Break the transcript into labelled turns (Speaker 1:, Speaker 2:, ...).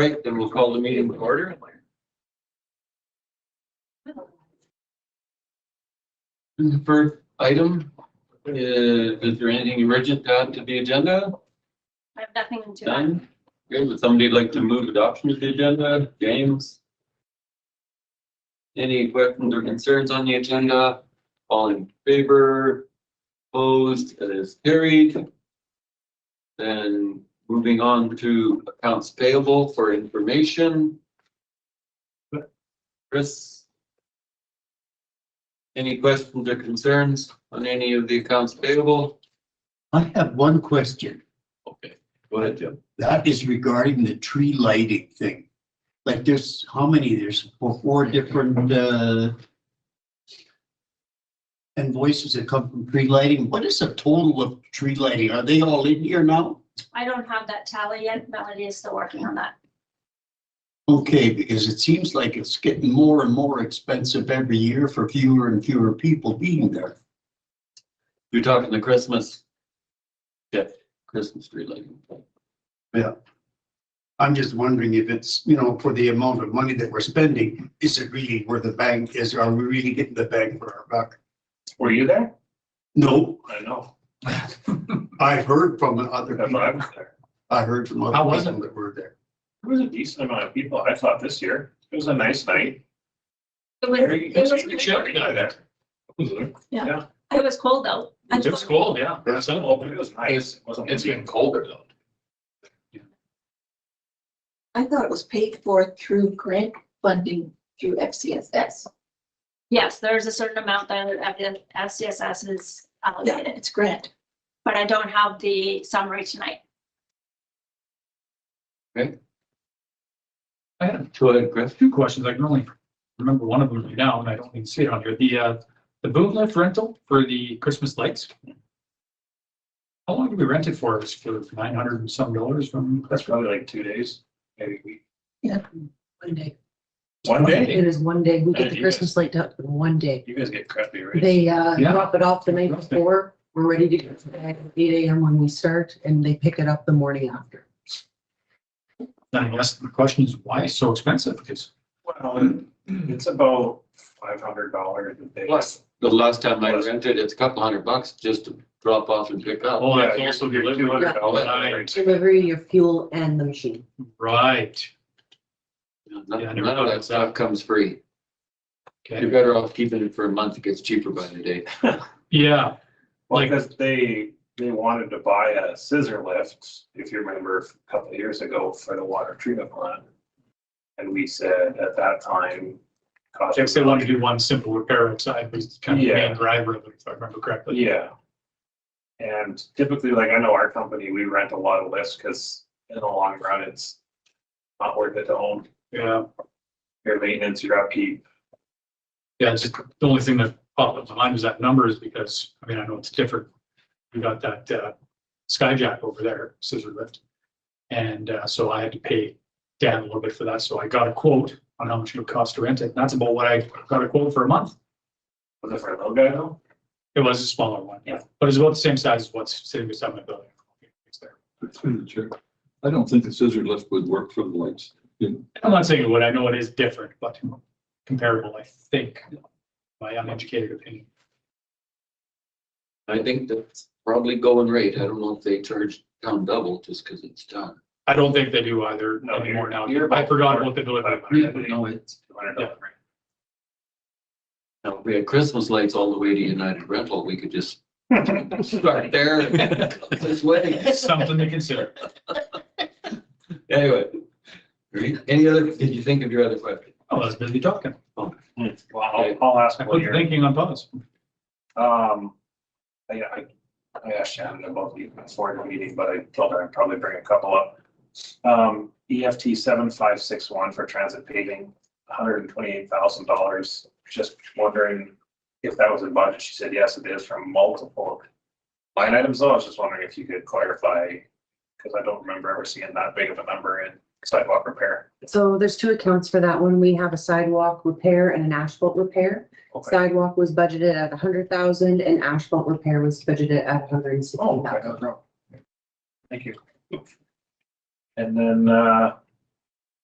Speaker 1: right, then we'll call the meeting to order. The first item, uh, is there anything urgent to add to the agenda?
Speaker 2: I have nothing to add.
Speaker 1: Done? Good, would somebody like to move adoption of the agenda? James? Any questions or concerns on the agenda? All in favor? Opposed, it is carried. Then moving on to accounts payable for information. Chris? Any questions or concerns on any of the accounts payable?
Speaker 3: I have one question.
Speaker 1: Okay, go ahead, Jim.
Speaker 3: That is regarding the tree lighting thing. Like there's, how many? There's four four different, uh, invoices that come from tree lighting. What is the total of tree lighting? Are they all in here now?
Speaker 2: I don't have that tally yet. Melody is still working on that.
Speaker 3: Okay, because it seems like it's getting more and more expensive every year for fewer and fewer people being there.
Speaker 1: You're talking the Christmas. Yeah, Christmas tree lighting.
Speaker 3: I'm just wondering if it's, you know, for the amount of money that we're spending, is it really where the bang is? Are we really getting the bang for our buck?
Speaker 4: Were you there?
Speaker 3: No,
Speaker 4: I know.
Speaker 3: I heard from other
Speaker 4: If
Speaker 3: people.
Speaker 4: I was there.
Speaker 3: I heard from other
Speaker 4: How was
Speaker 3: people that were there.
Speaker 4: There was a decent amount of people, I thought, this year. It was a nice night.
Speaker 2: It was,
Speaker 4: Very-
Speaker 2: it was-
Speaker 4: pretty chilly out there. It
Speaker 2: it was cold though. I
Speaker 4: was
Speaker 2: told-
Speaker 4: cold, yeah. It was open, it was nice. It wasn't
Speaker 1: It's been
Speaker 4: colder though.
Speaker 5: I thought it was paid for through grant funding through FCSS.
Speaker 2: Yes, there's a certain amount that SCSS is
Speaker 5: Yeah,
Speaker 2: allocated,
Speaker 5: it's grant.
Speaker 2: but I don't have the summary tonight.
Speaker 6: I had
Speaker 1: Go ahead, Chris.
Speaker 6: two questions. I can only remember one of them right now, and I don't even see it on here. The, uh, the boom lift rental for the Christmas lights. How long did we rent it for? It's for nine hundred and some dollars from.
Speaker 4: That's probably like two days, maybe a week.
Speaker 7: One day.
Speaker 4: One day,
Speaker 7: It is one day. We
Speaker 4: Yeah,
Speaker 7: get the
Speaker 4: you
Speaker 7: Christmas light up in one day.
Speaker 4: you guys get crappy, right?
Speaker 7: They uh,
Speaker 6: Yeah.
Speaker 7: drop it off the night
Speaker 6: Okay.
Speaker 7: before. We're ready to go for that at eight AM when we start and they pick it up the morning after.
Speaker 6: Then I asked the question is why it's so expensive? Because
Speaker 4: Well, it's about five hundred dollars a day.
Speaker 1: Plus, the last time I rented, it's a couple hundred bucks just to drop off and pick up.
Speaker 6: Oh, that's
Speaker 4: Yeah,
Speaker 6: also
Speaker 4: you're
Speaker 6: delivery.
Speaker 4: $200
Speaker 1: Yeah.
Speaker 4: right?
Speaker 7: Delivery, your fuel and the machine.
Speaker 6: right.
Speaker 1: None
Speaker 6: Yeah, I never
Speaker 1: none of
Speaker 6: thought
Speaker 1: that
Speaker 6: of
Speaker 1: stuff
Speaker 6: that.
Speaker 1: comes free. You're
Speaker 6: Okay.
Speaker 1: better off keeping it for a month. It gets cheaper by the day.
Speaker 6: Yeah.
Speaker 4: Well,
Speaker 6: Like-
Speaker 4: because they, they wanted to buy a scissor lift, if you remember a couple of years ago for the water treatment plant. And we said at that time. cost-
Speaker 6: They said wanted to do one simple repair outside was kind of the
Speaker 4: Yeah.
Speaker 6: main driver of it, if I remember correctly.
Speaker 4: Yeah. And typically, like I know our company, we rent a lot of lifts because in the long run, it's not worth it to own
Speaker 6: Yeah.
Speaker 4: your maintenance, your upkeep.
Speaker 6: Yeah, it's just the only thing that popped up in my mind was that number is because, I mean, I know it's different. We got that uh skyjack over there, scissor lift. And uh so I had to pay Dan a little bit for that. So I got a quote on how much it would cost to rent it. And That's about what I got a quote for a month.
Speaker 4: Was it for a little guy though?
Speaker 6: It was a smaller one, yeah, but it's about the same size as what's sitting beside my building. It's there.
Speaker 8: expenditure. I don't think the scissor lift would work for the lights.
Speaker 6: I'm not saying it would, I know it is different, but comparable, I think, my uneducated opinion.
Speaker 1: I think that's probably going rate. I don't know if they charge town double just because it's done.
Speaker 6: I don't think they do either
Speaker 4: No, you're-
Speaker 6: anymore now.
Speaker 4: you're-
Speaker 6: I forgot what the delivery.
Speaker 4: Five hundred a day,
Speaker 1: No, it's,
Speaker 4: two hundred dollars.
Speaker 1: now, if we had Christmas lights all the way to United Rental, we could just start there. and This way.
Speaker 6: Something to consider.
Speaker 1: Anyway. Any other, did you think of your other question?
Speaker 6: Oh, I was busy talking.
Speaker 4: Well, I'll, I'll ask
Speaker 6: I
Speaker 4: one
Speaker 6: put
Speaker 4: year.
Speaker 6: thinking on pause.
Speaker 4: Um, I, I, I asked Shannon about the affordable meeting, but I told her I'd probably bring a couple up. Um, EFT seven five six one for transit paving, hundred and twenty-eight thousand dollars. Just wondering if that was in budget. She said, yes, it is from multiple line items. So I was just wondering if you could clarify, because I don't remember ever seeing that big of a number in sidewalk repair.
Speaker 7: So there's two accounts for that one. We have a sidewalk repair and an asphalt repair.
Speaker 4: Okay.
Speaker 7: Sidewalk was budgeted at a hundred thousand and asphalt repair was budgeted at a hundred and sixty
Speaker 4: Oh,
Speaker 7: thousand.
Speaker 4: Thank you. And then, uh,